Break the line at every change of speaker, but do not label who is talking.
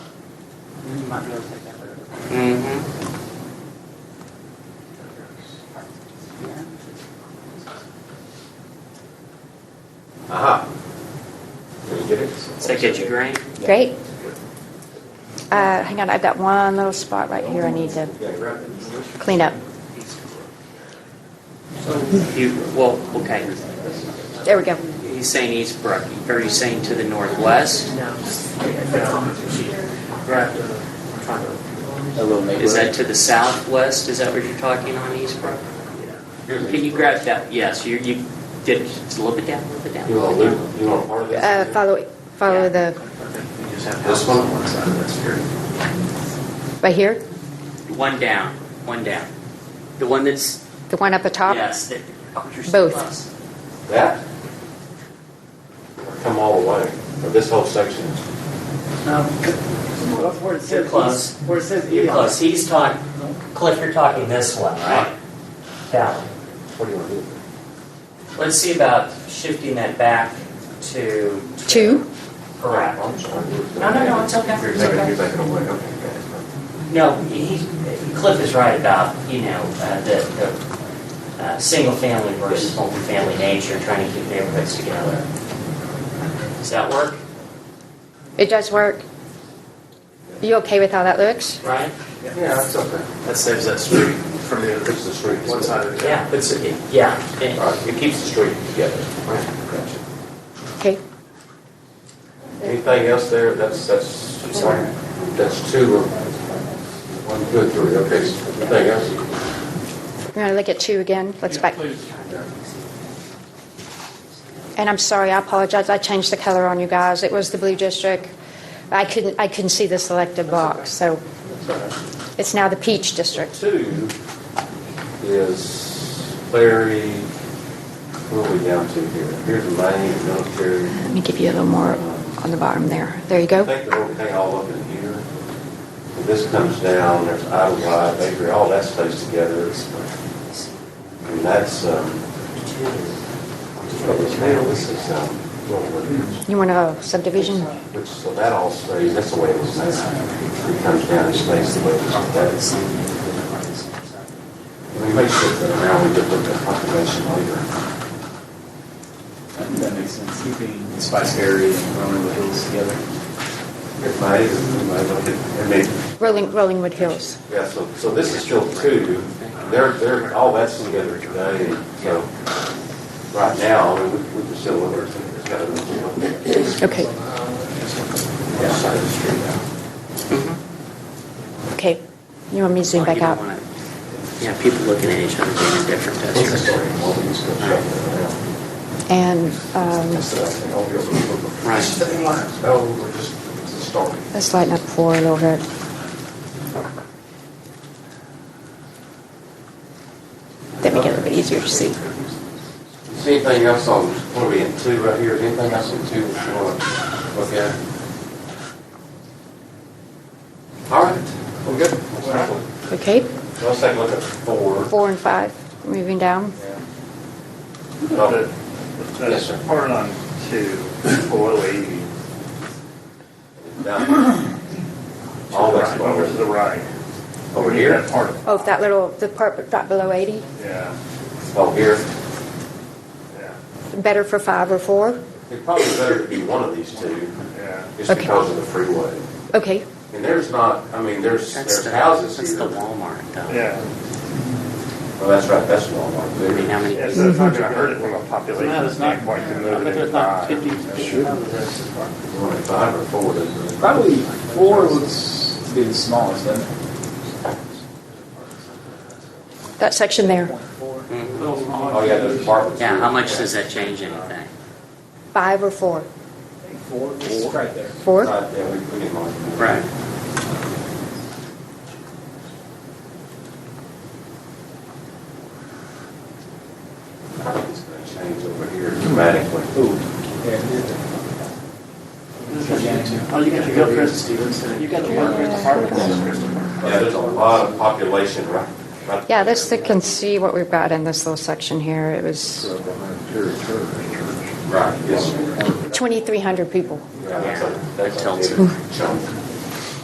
might be able to take that road.
Mm-hmm.
Yeah.
Aha. Did you get it?
Does that get you green?
Great. Uh, hang on, I've got one little spot right here I need to
Yeah, grab it.
clean up.
You, well, okay.
There we go.
He's saying East Brook. Are you saying to the northwest?
No.
A little neighborhood.
Is that to the southwest? Is that what you're talking on East Brook? Can you grab that? Yes, you, you did, just a little bit down, a little bit down. a
You
little
want
bit
to
down.
loop, you want part of this?
Uh, follow, follow the,
This one? That's here.
right here,
One down, one down. The one that's,
the one up the top?
yes. that- oh, you're so
Both.
close.
That? Come all the way, or this whole section?
Um, Where it
You're
says
close.
east, where it says
You're
east.
close. He's talking, Cliff, you're talking this one, right? That one.
What do you want to do?
Let's see about shifting that back to.
Two?
Correct.
I'm sorry.
No, no, no, it's okay.
You're
It's
making,
okay.
you're making a way, okay. guys.
No, he, Cliff is right about, you know, uh, the, the, uh, single family versus multifamily nature, trying to keep neighborhoods together. Does that work,
It does work. You okay with how that looks?
Ryan?
Yeah, that's okay.
That saves that street from the
It's the street.
one side of the.
Yeah, it's, it- yeah.
All
it-
right, it keeps the street together. Gotcha.
Okay.
Anything else there? That's, that's, that's two or one, two, and three, okay. Anything else?
We're gonna look at two again. Let's back. And I'm sorry, I apologize. I changed the color on you guys. It was the blue district. I couldn't, I couldn't see the selected box, so it's now the peach district.
Two is Larry, what are we down to here? Here's the main military.
Let me give you a little more on the bottom there. There you
I
go.
think the whole thing all up in here. And This comes down, there's Idlewild, Bakery, all that stays together. It's- And that's, um, this is, um,
You want a subdivision?
Which, so that all stays, that's the way it was now. It comes down and stays the way it was. That is, we may shift that around, we could look at population later.
I think That makes sense, keeping Spice Area and Roanoke Hills together.
It may, it may look at, I mean,
Rolling, Rollingwood Hills.
yeah, so, so this is still two. They're, they're, all that's together today, and so right now, I mean, we, we can still look at, it's got to be.
Okay,
Yeah, side of the street now.
okay. You want me to zoom
Well,
back
you don't
out?
wanna- Yeah, people looking at each other being indifferent, that's
That's the
your
story.
story.
Well, we just go check it out.
And um,
That's the thing. I'll be able to look at-
Right.
No, we're just, it's a story.
let's lighten up four a little bit. That make it a little bit easier to see.
Is anything else on, what are we in, two right here, is anything else in two that you want to look at? All right, we're good. Let's
Okay,
take a look at four.
four and five, moving down.
No, Yes,
That's
sir.
part on two, below eighty.
down. All that's
Right, Over to the right.
Over here?
That Part of,
Oh, that little, the part right below 80,
yeah,
Oh, here.
yeah,
better for five or four?
It'd probably be better to be one of these two,
yeah.
just
Okay.
because of the freeway.
Okay,
And there's not, I mean, there's,
That's
there's
the,
houses
that's
here.
the Walmart though.
Yeah.
Well, that's right, that's Walmart.
I mean, how many?
Yeah, so it's not
Mm-hmm.
gonna hurt it from a population standpoint to move it in five.
uh,
One and Five or four, doesn't it?
Probably four looks to be the smallest, doesn't it?
that section there,
Mhm.
Oh, yeah, those apartments.
Yeah,
here.
how much does that change anything?
five or four?
Four, it's right there.
Four?
Uh, Yeah, we, we didn't mind.
Right.
I think it's gonna change over here dramatically.
Ooh. Yeah, here.
Oh, you got to go, Chris. You got to go, Chris.
Yeah, there's a lot of population, right? right-
Yeah, this, they can see what we've got in this little section here. It was
Right, yes.
2,300 people.
Yeah, that's a-
That
That's a
tells
big chunk.